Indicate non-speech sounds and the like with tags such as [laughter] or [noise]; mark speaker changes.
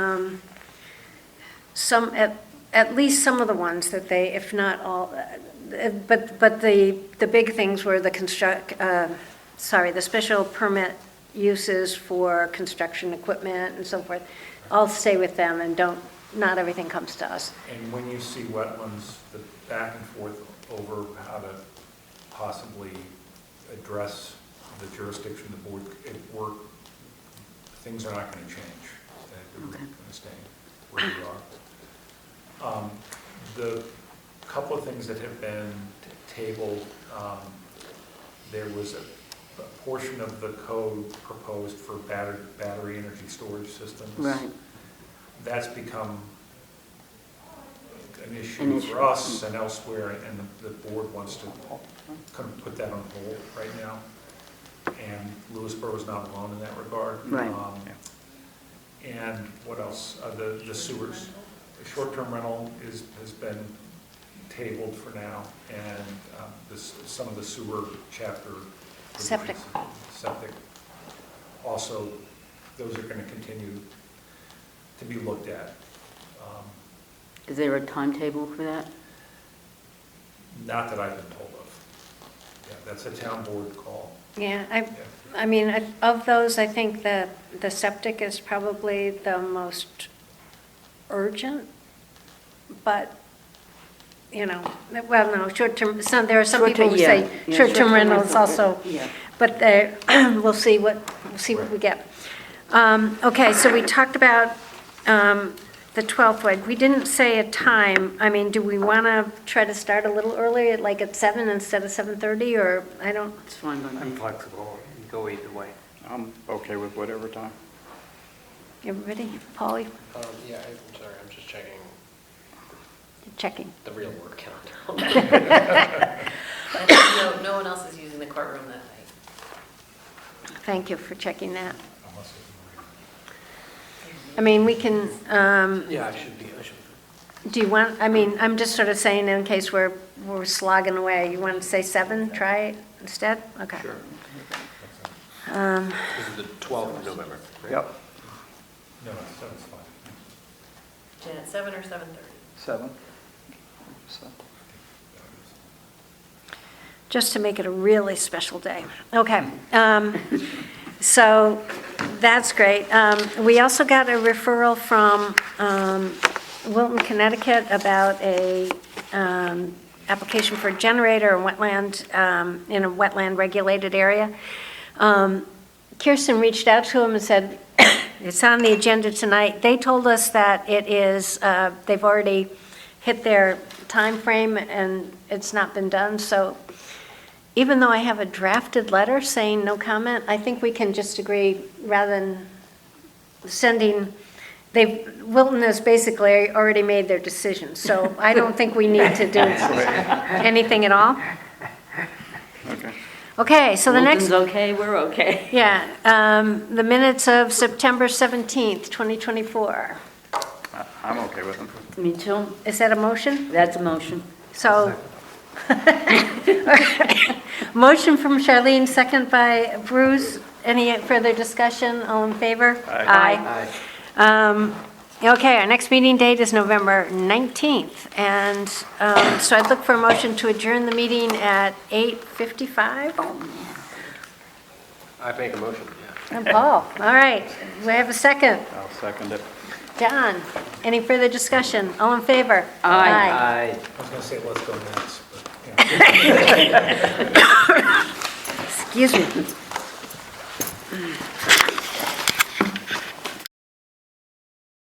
Speaker 1: um, some, at, at least some of the ones that they, if not all, uh, but, but the, the big things were the construct, uh, sorry, the special permit uses for construction equipment and so forth. I'll stay with them and don't, not everything comes to us.
Speaker 2: And when you see wetlands, the back and forth over how to possibly address the jurisdiction of the board, it work, things are not gonna change. They're gonna stay where you are. Um, The couple of things that have been t- tabled, um, there was a a portion of the code proposed for batter- battery energy storage systems
Speaker 3: Right,
Speaker 2: that's become an
Speaker 3: An
Speaker 2: issue
Speaker 3: issue.
Speaker 2: for us and elsewhere, and the- the board wants to kind of put that on hold right now. And Lewisboro is not alone in that regard.
Speaker 3: Right.
Speaker 2: Um, And what else? Uh, The the sewers. The Short-term rental is, has been tabled for now, and um, this, some of the sewer chapter.
Speaker 1: Septic.
Speaker 2: provisions, Septic. Also, those are going to continue to be looked at. Um,
Speaker 3: is there a timetable for that?
Speaker 2: Not that I've been told of. Yeah, that's a town board call.
Speaker 1: Yeah, I,
Speaker 2: Yeah.
Speaker 1: I mean, I- of those, I think the, the septic is probably the most urgent, but, you know, well, no, short-term, some, there are some people who
Speaker 3: Short-term,
Speaker 1: say
Speaker 3: yeah, yeah,
Speaker 1: short-term rentals also,
Speaker 3: Yeah.
Speaker 1: but they, [clears throat] we'll see what, we'll see what we get. Um, Okay, so we talked about um, the 12th, one. we didn't say a time, I mean, do we want to try to start a little earlier, like at 7 instead of 7:30, or, I don't,
Speaker 3: It's fine by
Speaker 4: I'm
Speaker 3: me.
Speaker 4: flexible, you go either way.
Speaker 5: I'm okay with whatever time.
Speaker 1: everybody, Paul, you
Speaker 6: Um, yeah, I'm sorry, I'm just checking
Speaker 1: checking.
Speaker 6: the real work calendar.
Speaker 7: I think No, no one else is using the courtroom that night.
Speaker 1: Thank you for checking that.
Speaker 2: unless it's-
Speaker 1: I mean, we can, um,
Speaker 4: Yeah, I should be, I should.
Speaker 1: do you want, I mean, I'm just sort of saying in case we're, we're slogging away, you want to say seven, try it instead? Okay.
Speaker 4: Sure.
Speaker 1: Um,
Speaker 6: This is the 12th of November, right?
Speaker 5: Yep,
Speaker 2: No, no, seven's fine.
Speaker 7: Jen, at seven or seven thirty?
Speaker 5: seven. So,
Speaker 1: Just to make it a really special day. Okay. um, So that's great. Um, We also got a referral from um, Wilton, Connecticut about a um, application for a generator in wetland, um, in a wetland-regulated area. Um, Kirsten reached out to him and said, [coughs] it's on the agenda tonight. They told us that it is, uh, they've already hit their time frame and it's not been done, so even though I have a drafted letter saying no comment, I think we can just agree, rather than sending, they, Wilton has basically already made their decision, so I don't think we need to do anything at all.
Speaker 5: okay.
Speaker 1: Okay, so the next.
Speaker 3: Wilton's okay, we're okay. [laughs]
Speaker 1: Yeah, um, the minutes of September 17th, 2024.
Speaker 5: I- I'm okay with them.
Speaker 3: Me too.
Speaker 1: Is that a motion?
Speaker 3: That's a motion.
Speaker 1: So, [laughs] motion from Charlene, second by Bruce. Any further discussion? All in favor?
Speaker 3: Aye.
Speaker 1: Aye. Um, Okay, our next meeting date is November 19th, and um, so I'd look for a motion to adjourn the meeting at 8:55.
Speaker 6: I make a motion, yeah.
Speaker 1: And Paul, all right, we have a second.
Speaker 5: I'll second it.
Speaker 1: John, any further discussion? All in favor?
Speaker 2: I
Speaker 4: Aye.
Speaker 2: was gonna say, let's go next, but, you know.
Speaker 1: Excuse me.